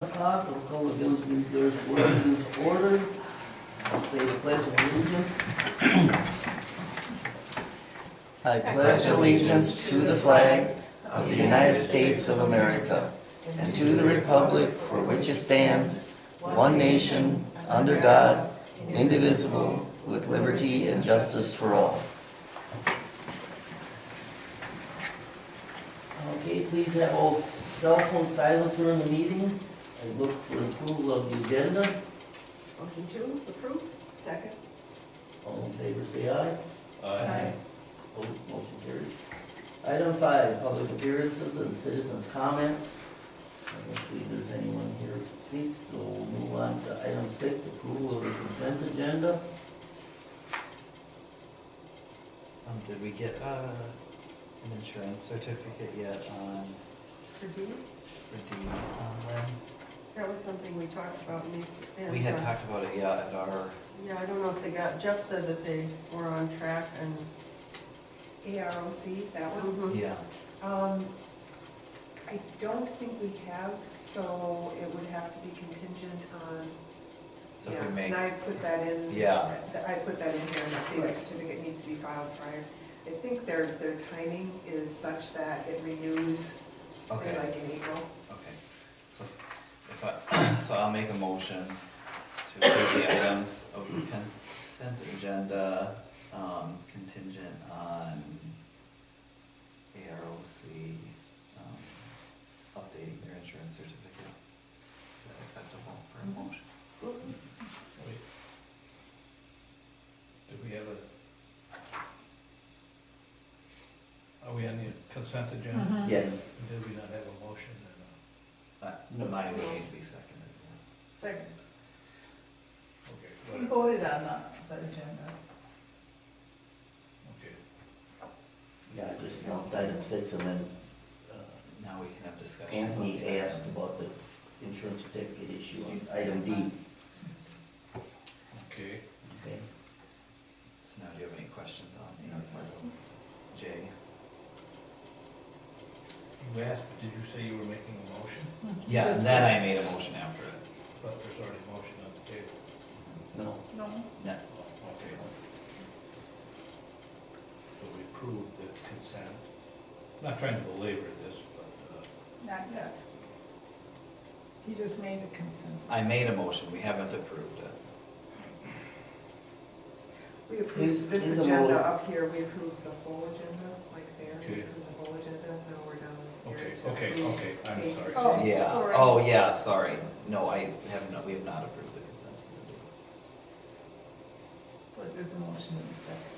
o'clock, we'll call the village meeting Thursday morning to order. I'll say the pledge of allegiance. I pledge allegiance to the flag of the United States of America and to the republic for which it stands, one nation, under God, indivisible, with liberty and justice for all. Okay, please have all cell phone silenced during the meeting. I look for approval of the agenda. Motion to approve, second. All in favor, say aye. Aye. Opposed, motion carried. Item five, public appearances and citizens' comments. I don't believe there's anyone here to speak, so we'll move on to item six, approval of the consent agenda. Um, did we get, uh, an insurance certificate yet on, For D, for Dean on Lynn? that was something we talked about in these. and, We had uh, talked about it, yeah, at our, Yeah, I don't know if they got, Jeff said that they were on track and. AROC, that one. Mhm. yeah, Um, I don't think we have, so it would have to be contingent on. so if yeah, we make, And I put that in. Yeah. that- I put that in here, and the certificate needs to be filed prior. I think their, their timing is such that it renews, in, like okay, okay. in April. So if I, so I'll make a motion to approve the items of the consent agenda, um, contingent on AROC, um, updating their insurance certificate. Is that acceptable for a motion? Wait. Did we have a? Are we on the consent agenda? Yes. Did we not have a motion and, But No. mine would need to be seconded. Second, uh, okay, we whatever, Mm-hmm. voted on that, that agenda. okay. Yeah, I just want item six, and then uh, Now we can have discussion. Anthony asked about the insurance certificate issue on item D. Okay, Okay, So now do you have any questions on the Jay? you asked, but did you say you were making a motion? Yeah, Just- then I made a motion after it. But there's already a motion on the table. no, No, No, Okay. So we approved the consent. Not trying to belabor this, but, uh, not yet. He just made a consent. I made a motion, we haven't approved it. We Is- approved this is the agenda whole- up here, we approved the whole agenda, like there, we Okay. approved the whole agenda, now we're down here. okay, to okay, approve okay, I'm the- sorry. Oh, Yeah, sorry. oh, yeah, sorry. No, I have not, we have not approved the consent. agenda. But there's a motion in the second.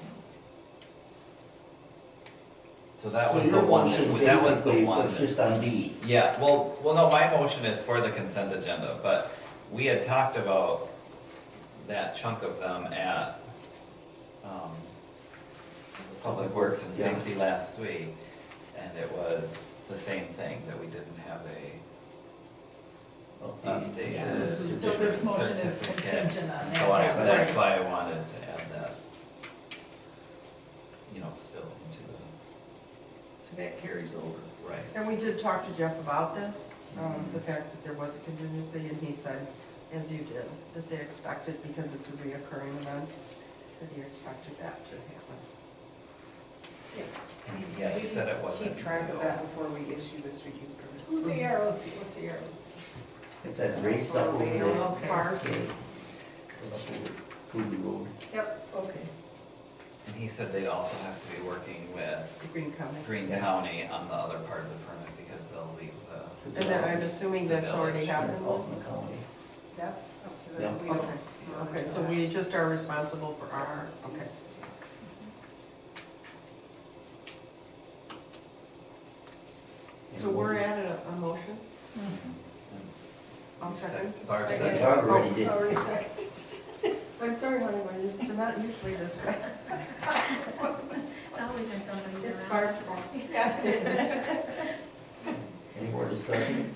So that was So the your one, motion that- that was the basically one. was that- just on D. Yeah, well, well, no, my motion is for the consent agenda, but we had talked about that chunk of them at, um, Public Works and Yeah. Safety last week, and it was the same thing, that we didn't have a Okay. Yeah. updated. So this motion is certificate. contingent on So I, that. that's why I wanted to add that, you know, still into the, So that carries over. right. And we did talk to Jeff about this, um, the fact that there was a contingency, and he said, as you did, that they expected, because it's a reoccurring event, that he expected that to happen. And he- yeah, he said it wasn't. Keep track of that before we issue this reuse permit. Who's the AROC, what's the AROC? It's that race up over there. All those cars. Okay. Cooley Road. Yep. Okay. And he said they'd also have to be working with The Green County. Green County on the other part of the permit because they'll leave the, And then I'm assuming that's already happened. Altman County. That's up to Yeah. them. We don't- Okay, okay, so we just are responsible for our, okay. So we're at a, a motion? I'll second. Barb Second. said, Oh, Barb already did. It's already seconded. I'm sorry, honey, but it's not usually this way. It's always when somebody's around. fault. Any more discussion?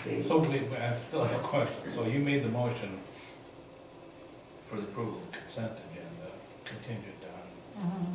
Okay. So wait, wait, I still have a question. So you made the motion for the approval of consent agenda contingent on Mhm.